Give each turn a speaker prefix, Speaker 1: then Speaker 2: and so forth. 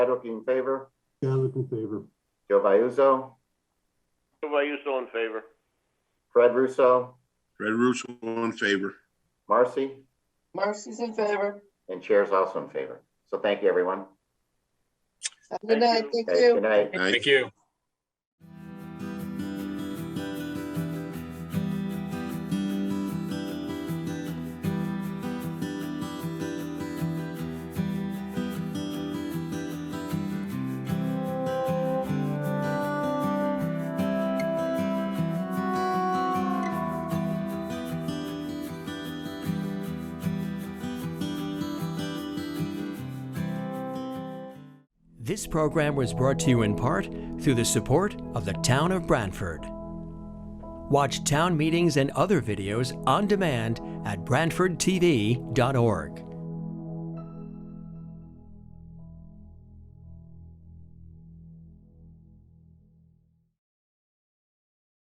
Speaker 1: Chadwick in favor,
Speaker 2: Chadwick in favor.
Speaker 1: Joe Vayuzo,
Speaker 3: Vayuso in favor.
Speaker 1: Fred Russo,
Speaker 4: Fred Russo in favor.
Speaker 1: Marcy,
Speaker 5: Marcy's in favor.
Speaker 1: and Chair's also in favor. So thank you, everyone.
Speaker 5: Have a Good
Speaker 3: Thank you.
Speaker 5: night, thank
Speaker 1: Okay,
Speaker 5: you.
Speaker 1: Good night.
Speaker 4: Aye.
Speaker 6: Thank you.
Speaker 7: This program was brought to you in part through the support of the Town of Brantford. Watch town meetings and other videos on demand at BrantfordTV.org.